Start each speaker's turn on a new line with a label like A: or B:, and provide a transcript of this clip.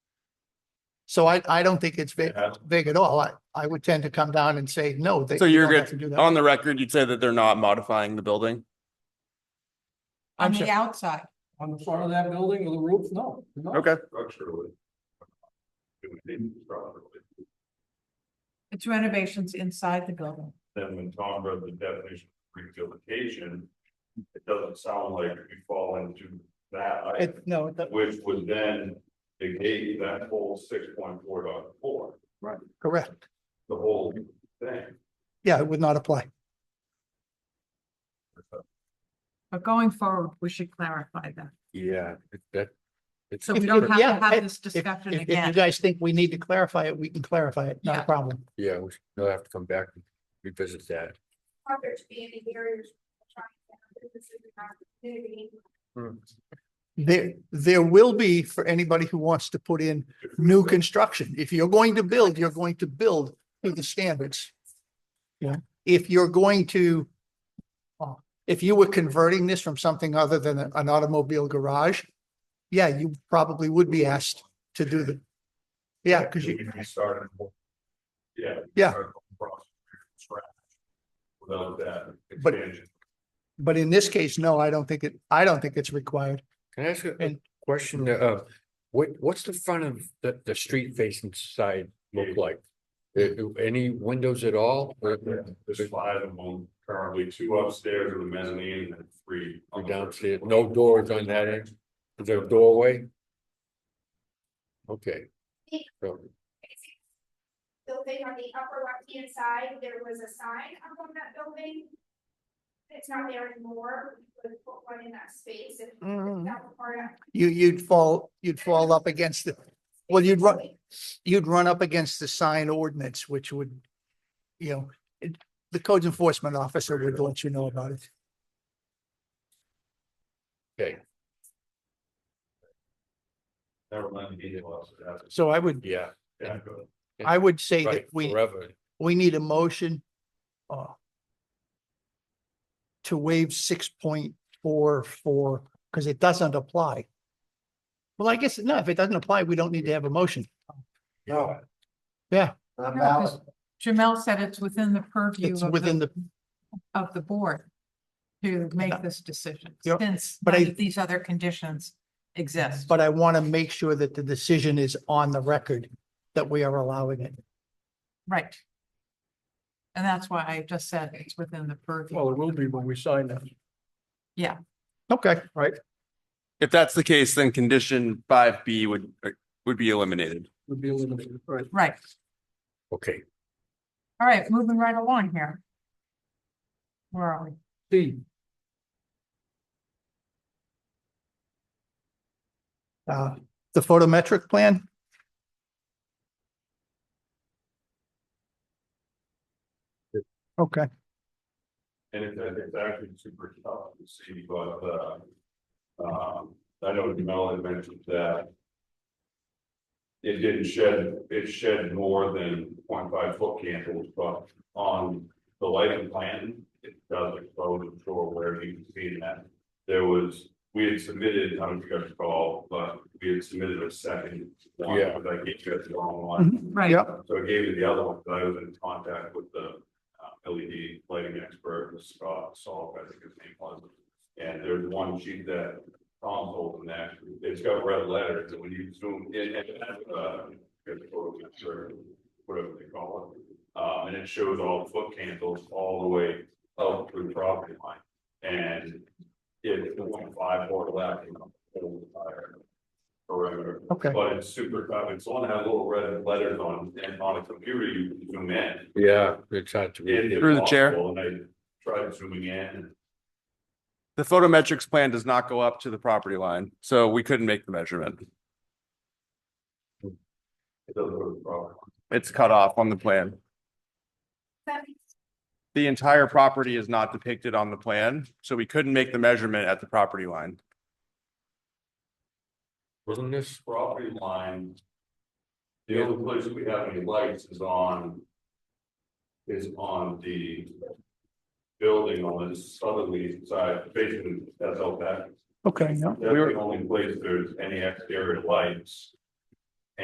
A: So I, I don't think it's big,
B: Yeah.
A: big at all. I, I would tend to come down and say, no, they
C: So
A: you
C: you're
A: don't
C: good
A: have to do that.
C: On the record, you'd say that they're not modifying the building?
A: I'm
D: on the outside.
E: On the front of that building or the roof? No. no.
C: Okay.
B: Structurally. It would be properly.
D: It's renovations inside the building.
B: Then when Tom read the definition of rehabilitation, it doesn't sound like we fall into that, item,
A: It, no, it doesn't-
B: which would then negate that whole six point four dot four,
A: correct.
B: the whole thing.
A: Yeah, it would not apply.
D: But going forward, we should clarify that.
F: Yeah, it- that. it's-
D: So we
A: If
D: don't
A: you-
D: have to
A: yeah,
D: have
A: if-
D: this
A: If,
D: discussion
A: if- if you
D: again.
A: guys think we need to clarify it, we can clarify it. Not
D: Yeah.
A: a problem.
F: Yeah, we should- we'll have to come back and revisit that.
G: Are there to be any barriers? for trying to have businesses in our community?
A: Hmm. There, there will be for anybody who wants to put in new construction. If you're going to build, you're going to build to the standards. You know, if you're going to, uh, if you were converting this from something other than a- an automobile garage, yeah, you probably would be asked to do the, yeah, because you,
B: We started. the whole- Yeah. we
A: Yeah.
B: started the whole process from scratch Without that
A: But-
B: expansion.
A: but in this case, no, I don't think it, I don't think it's required.
F: Can I ask a- a
A: And- Mm-hmm.
F: question? Uh, what, what's the front of the, the street facing side look like? Uh, uh, any windows at all? Or-
B: There's five of them currently, two upstairs with a mezzanine and then three.
F: Or
B: on the first
F: downstairs,
B: floor.
F: no doors on that end, is there a doorway? Okay. So,
G: Building on the upper left-hand side, there was a sign up on that building. It's not there anymore, we could put one in that space if that
A: Mm-hmm.
G: were part of.
A: You, you'd fall, you'd fall up against the, Well, you'd run-
G: Basically,
A: you'd run up against the sign ordinance, which would, you know, it- the codes enforcement officer would let you know about it.
F: okay,
B: Never mind the gate laws, that's-
A: So I would,
F: yeah,
B: yeah, go.
A: I would say that
F: right,
A: we,
F: forever,
A: we need a motion uh, to waive six point four four, because it doesn't apply. Well, I guess, no, if it doesn't apply, we don't need to have a motion.
H: No.
A: Yeah.
H: Not
D: No,
H: valid.
D: 'cause Jamel said it's within the purview
A: It's
D: of
A: within
D: the,
A: the,
D: of the board to make this decision,
A: Yeah,
D: since
A: but
D: none
A: I-
D: of these other conditions exist.
A: but I want to make sure that the decision is on the record, that we are allowing it.
D: Right. And that's why I just said it's within the purview.
E: Well, it will be when we sign that.
A: Okay, right.
C: If that's the case, then condition five B would, uh, would be eliminated.
E: Would be eliminated. Right.
D: Right,
F: okay,
D: all right, moving right along here. Where are we?
E: D,
A: Uh, the photometric plan? Okay,
B: And it's, it's actually super tough to see, but, uh, um, I know Jamel had mentioned that. It didn't shed, it shed more than 0.5 foot candles, but on the lighting plan, it does expose the shore where you can see that. There was, we had submitted, I don't know if you guys recall, but we had submitted a second one,
F: Yeah.
B: but I gave you guys the wrong one.
D: Right.
A: Yep.
B: So I gave you the other one, but I was in contact with the uh, LED lighting expert, Scott Salk, I think his name was. And there's one sheet that Tom's holding that, it's got red letters, and when you zoom in, and, uh, get the photo picture, whatever they call it. Um, and it shows all the foot candles all the way up to the property line. And it's the one five or left, you know, whole entire perimeter.
A: okay.
B: But it's super common, it's only had little red letters on, and on a computer, you can zoom in.
F: yeah, it's hard to.
B: It is
F: read.
C: Through the chair.
B: impossible, And I tried zooming in, and
C: The photometrics plan does not go up to the property line, so we couldn't make the measurement.
B: it doesn't look proper.
C: It's cut off on the plan.
G: that means
C: The entire property is not depicted on the plan, so we couldn't make the measurement at the property line.
F: Wasn't this,
B: Property line. The only place we have any lights is on. Is on the. Building on the southerly side, basically, that's all that.
A: Okay, no,
B: That's the only place there's any exterior lights.